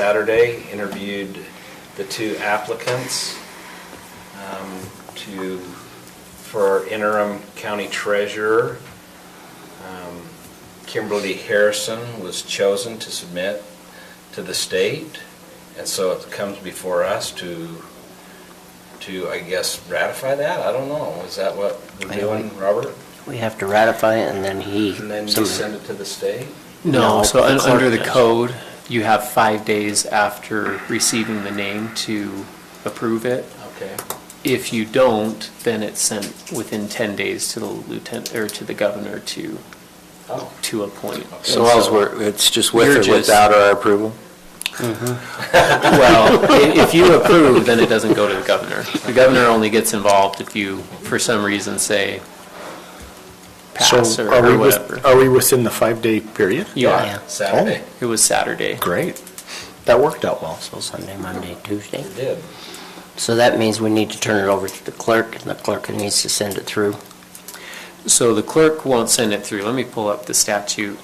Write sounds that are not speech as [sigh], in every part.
Saturday, interviewed the two applicants um, to, for our interim county treasurer. Um, Kimberly Harrison was chosen to submit to the state, and so it comes before us to, to, I guess, ratify that? I don't know. Is that what we're I don't- doing, Robert? We have to ratify it and then he. And then you some- send it to the state? No, No, so the un- clerk under the does. code, you have five days after receiving the name to approve it. Okay. If you don't, then it's sent within 10 days to the lieutenant, or to the governor to, Oh. to appoint. So all's we're, it's just You're with just- or without our approval? [laughs] Well, i- if you approve, then it doesn't go to the governor. The governor only gets involved if you, for some reason, say pass So or are we, or with- whatever. are we within the five-day period? You Yeah, are. Saturday. It was Saturday. Great. That worked out well. So Sunday, Monday, Tuesday. It did. So that means we need to turn it over to the clerk and the clerk needs to send it through. So the clerk won't send it through. Let me pull up the statute.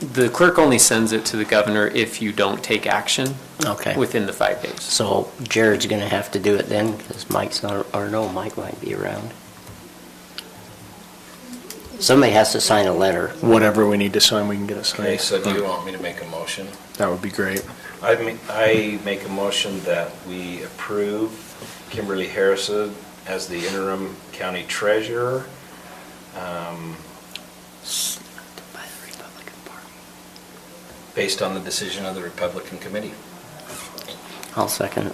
The clerk only sends it to the governor if you don't take action Okay. within the five days. So Jared's gonna have to do it then because Mike's not, or no, Mike might be around. Somebody has to sign a letter. Whatever we need to sign, we can get it signed. Okay, so do you want me to make a motion? That would be great. I mean, I make a motion that we approve Kimberly Harrison as the interim county treasurer. um, By the Republican Party. based on the decision of the Republican Committee. I'll second it.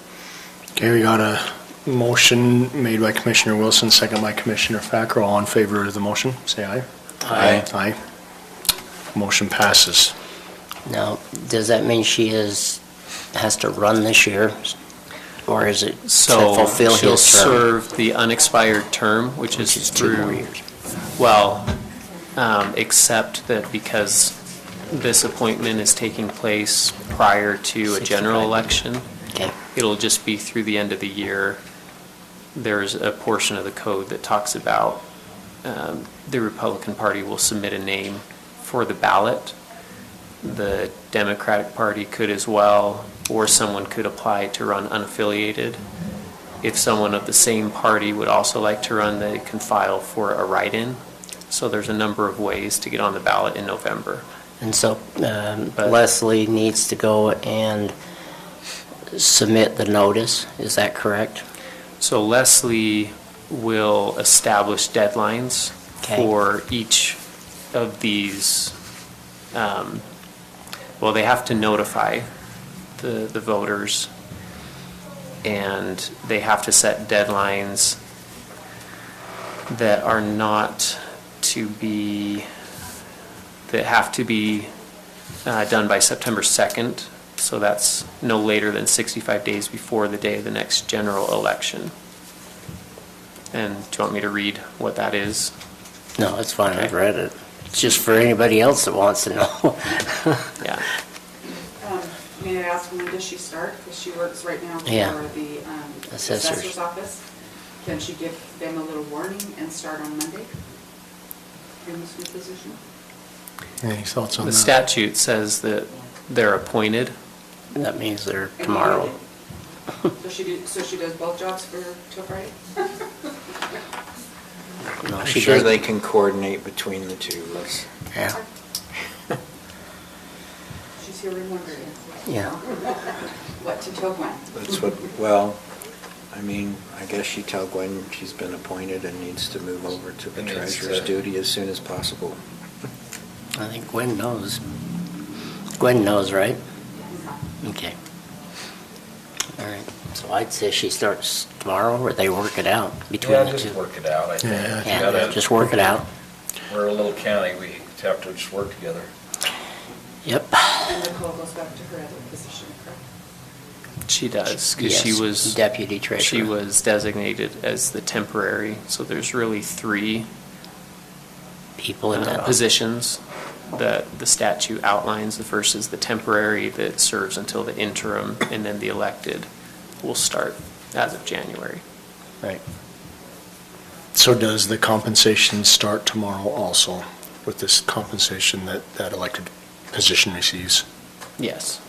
Okay, we got a motion made by Commissioner Wilson, second by Commissioner Fackrell. All in favor of the motion, say aye. Aye. Aye. Motion passes. Now, does that mean she is, has to run this year? Or is it to So fulfill she'll his term? serve the unexpired term, which Which is is two more through, years. well, um, except that because this appointment is taking place prior to a general 65. election, Okay. it'll just be through the end of the year. There's a portion of the code that talks about um, the Republican Party will submit a name for the ballot. The Democratic Party could as well, or someone could apply to run unaffiliated. If someone of the same party would also like to run, they can file for a write-in. So there's a number of ways to get on the ballot in November. And so um, But- Leslie needs to go and submit the notice, is that correct? So Leslie will establish deadlines Okay. for each of these, um, well, they have to notify the, the voters, and they have to set deadlines that are not to be, that have to be uh, done by September 2nd, so that's no later than 65 days before the day of the next general election. And do you want me to read what that is? No, it's fine, I've read it. It's just for anybody else that wants to know. [laughs] Yeah. Um, May I ask, when does she start? Because she works right now for Yeah. the um, Assessors. assessor's office. Can she give them a little warning and start on Monday in this new [laughs] position? Any thoughts on The that? statute says that they're appointed. That means they're And tomorrow. So she do, so she does both jobs for, till Friday? No, I'm she sure does- they can coordinate between the two of us. Yeah, [laughs] She's here and wondering. Yeah. [laughs] What to till when? That's what, well, I mean, I guess she tell Gwen she's been appointed and needs to move over to the And needs treasurer's to- duty as soon as possible. I think Gwen knows. Gwen knows, right? Okay. All right, so I'd say she starts tomorrow, or they work it out between Yeah, the just two. work it out, I think. Yeah, You gotta- Yeah, just work it out. We're a little county, we have to just work together. Yep. And Nicole goes back to her other position, correct? She does, because she Yes, was. deputy treasurer. She was designated as the temporary, so there's really three People in uh, that position. positions that the statute outlines. The first is the temporary that serves until the interim, and then the elected will start as of January. Right. So does the compensation start tomorrow also with this compensation that that elected position receives? Yes.